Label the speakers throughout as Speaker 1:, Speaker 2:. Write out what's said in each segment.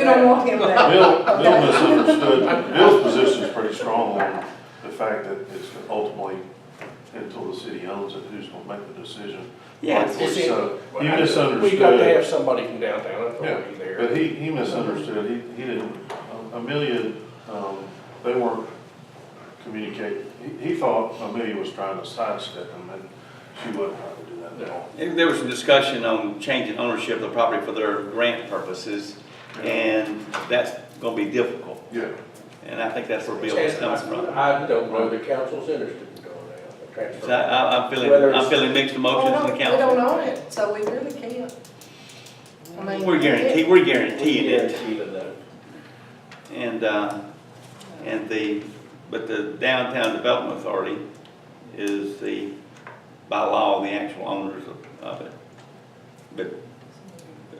Speaker 1: You don't want him there.
Speaker 2: Bill, Bill misunderstood, Bill's position's pretty strong on the fact that it's ultimately, until the city owns it, who's gonna make the decision.
Speaker 3: Yeah, it's- it's-
Speaker 2: So,
Speaker 3: Well,
Speaker 2: you
Speaker 3: I- We got to have
Speaker 2: misunderstood,
Speaker 3: somebody from downtown authority there.
Speaker 2: but he, he misunderstood, he, he didn't, Amelia, um, they weren't communicating. He, he thought Amelia was trying to sidestep him, and she wasn't trying to do that at all.
Speaker 4: There was some discussion on changing ownership of the property for their grant purposes, and that's gonna be difficult.
Speaker 2: Yeah.
Speaker 4: And I think that's where Bill is
Speaker 3: And
Speaker 4: coming from.
Speaker 3: I I don't know the council's interested in going out, the
Speaker 4: So I-
Speaker 3: transfer.
Speaker 4: I, I'm feeling,
Speaker 3: Whether it's-
Speaker 4: I'm feeling mixed
Speaker 1: Oh,
Speaker 4: emotions
Speaker 1: no,
Speaker 4: in the
Speaker 1: We don't
Speaker 4: council.
Speaker 1: own it, so we really can't. I mean,
Speaker 4: We're guaranteed, we're guaranteed it,
Speaker 3: Guaranteed of that.
Speaker 4: and, uh, and the, but the downtown development authority is the, by law, the actual owners of, of it. But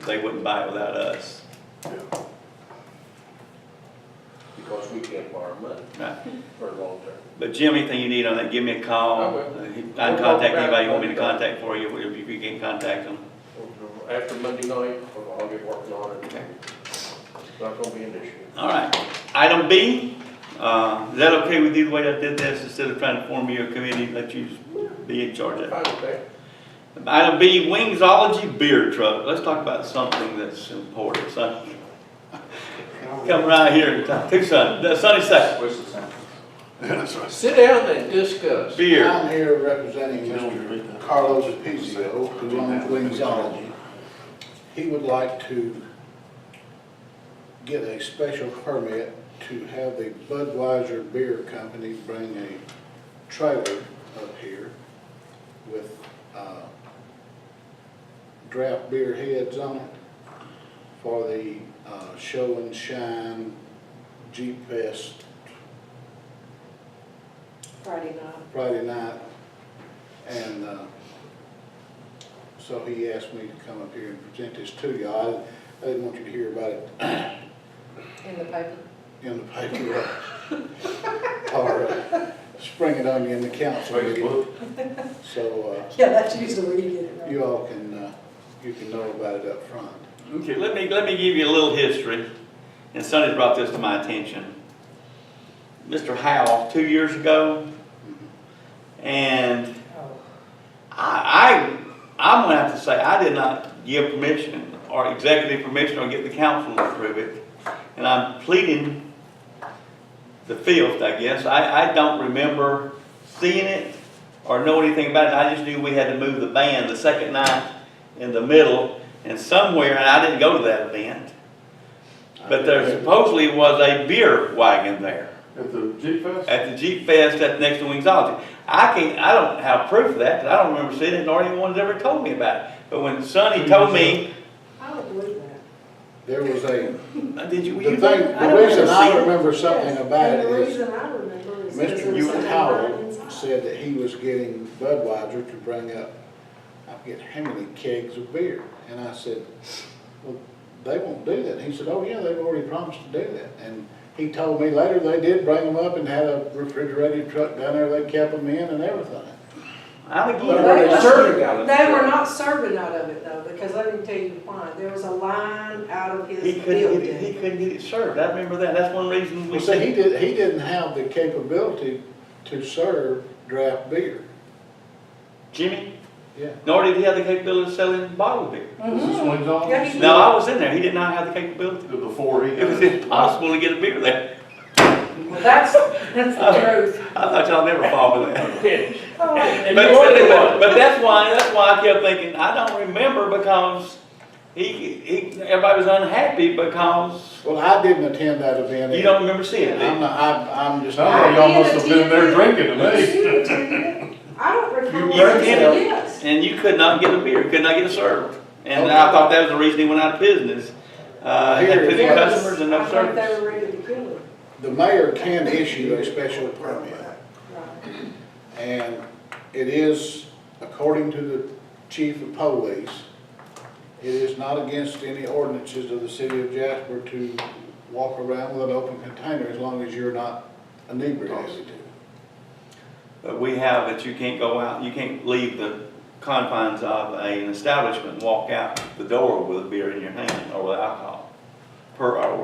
Speaker 4: they wouldn't buy it without us,
Speaker 2: Yeah.
Speaker 3: Because we can't borrow money
Speaker 4: right?
Speaker 3: for the long term.
Speaker 4: But Jim, anything you need on that, give me a call.
Speaker 3: I
Speaker 4: Uh,
Speaker 3: will.
Speaker 4: I can contact anybody you want me to contact for you, if you can contact them.
Speaker 3: After Monday night, I'll get working on it. It's not gonna be an issue.
Speaker 4: All right. Item B, uh, is that okay with you, the way I did this, instead of trying to form you a committee, let you be in charge of it?
Speaker 3: Fine with that.
Speaker 4: Item B, Wingsology Beer Truck. Let's talk about something that's important, son. Come right here and talk, to son, Uh, Sonny Sack,
Speaker 2: Yeah, that's right.
Speaker 3: Sit down and discuss.
Speaker 4: beer.
Speaker 5: I'm here representing Mr. Carlos Apizio, who owns Wingsology. He would like to get a special permit to have the Budweiser Beer Company bring a trailer up here with uh, draft beer heads on it for the uh, Show and Shine Jeep Fest
Speaker 1: Friday night.
Speaker 5: Friday night, and uh, so he asked me to come up here and present this to you. I I didn't want you to hear about it
Speaker 1: In the paper.
Speaker 5: in the paper or uh, spring it on you in the council meeting.
Speaker 2: Facebook.
Speaker 5: So
Speaker 1: Yeah, that's usually where you
Speaker 5: uh,
Speaker 1: get it,
Speaker 5: you all can, uh, you can know about it up front.
Speaker 4: Okay, let me, let me give you a little history, and Sonny brought this to my attention. Mr. Howe, two years ago, and
Speaker 1: right? Oh.
Speaker 4: I, I, I'm gonna have to say, I did not give permission, or executive permission, or get the council to approve it, and I'm pleading the fifth, I guess, I, I don't remember seeing it or know anything about it, I just knew we had to move the band the second night in the middle, and somewhere, and I didn't go to that event, but there supposedly was a beer wagon there
Speaker 2: At the Jeep Fest?
Speaker 4: at the Jeep Fest at next to Wingsology. I can't, I don't have proof of that, 'cause I don't remember seeing it, nor anyone's ever told me about it. But when Sonny
Speaker 5: Mm-hmm.
Speaker 4: told me,
Speaker 1: I don't believe that.
Speaker 5: There was a,
Speaker 4: uh, did you,
Speaker 5: the
Speaker 4: were
Speaker 5: thing,
Speaker 4: you there?
Speaker 5: the
Speaker 4: don't
Speaker 5: reason
Speaker 4: remember
Speaker 5: I
Speaker 4: seeing it.
Speaker 5: remember something
Speaker 1: Yes,
Speaker 5: about it
Speaker 1: And the
Speaker 5: is
Speaker 1: reason I remember is. because there was
Speaker 5: Mr.
Speaker 1: something
Speaker 5: Howell
Speaker 1: right inside.
Speaker 5: said that he was getting Budweiser to bring up, I forget how many kegs of beer. And I said, well, they won't do that. He said, oh yeah, they've already promised to do that. And he told me later they did bring them up and had a refrigerated truck down there, they kept them in and everything.
Speaker 4: I think,
Speaker 3: But
Speaker 4: you-
Speaker 3: were they serving out of the
Speaker 1: They were
Speaker 3: truck?
Speaker 1: not serving out of it though, because let me tell you why. There was a line out of his
Speaker 4: he couldn't get
Speaker 1: building.
Speaker 4: it, he couldn't get it served, I remember that, that's one reason we
Speaker 5: Well, see, he
Speaker 4: said,
Speaker 5: did, he didn't have the capability to serve draft beer.
Speaker 4: Jimmy,
Speaker 5: Yeah.
Speaker 4: nor did he have the capability of selling bottled beer.
Speaker 2: Is this
Speaker 1: Mhm.
Speaker 2: Wingsology?
Speaker 1: Yeah, he-
Speaker 4: No, I was in there, he did not have the capability.
Speaker 2: Before he.
Speaker 4: It was impossible to get a beer there.
Speaker 1: Well, That's, that's the truth.
Speaker 4: I thought y'all never fall for that.
Speaker 1: Oh,
Speaker 3: And
Speaker 4: But,
Speaker 3: you ordered
Speaker 4: but,
Speaker 3: one.
Speaker 4: but that's why, that's why I kept thinking, I don't remember because he, he, everybody was unhappy because
Speaker 5: Well, I didn't attend that event.
Speaker 4: you don't remember seeing it.
Speaker 5: I'm,
Speaker 4: did
Speaker 5: not- I'm, I'm just.
Speaker 2: Sounds like y'all must have been there drinking
Speaker 1: You
Speaker 2: to me.
Speaker 1: attended it. I don't recall.
Speaker 4: You drank
Speaker 1: seeing
Speaker 4: it.
Speaker 1: Yes.
Speaker 4: you? And you could not get a beer, could not get it served. And I thought that was the reason he went out of business. Uh, he had fifty
Speaker 5: Yes.
Speaker 4: customers and no
Speaker 1: I think they
Speaker 4: service.
Speaker 1: were ready to kill him.
Speaker 5: The mayor can issue a special permit,
Speaker 1: Right.
Speaker 5: and it is, according to the chief of police, it is not against any ordinances of the city of Jasper to walk around with an open container as long as you're not inebriated.
Speaker 4: But we have that you can't go out, you can't leave the confines of an establishment and walk out the door with a beer in your hand or with alcohol. per hour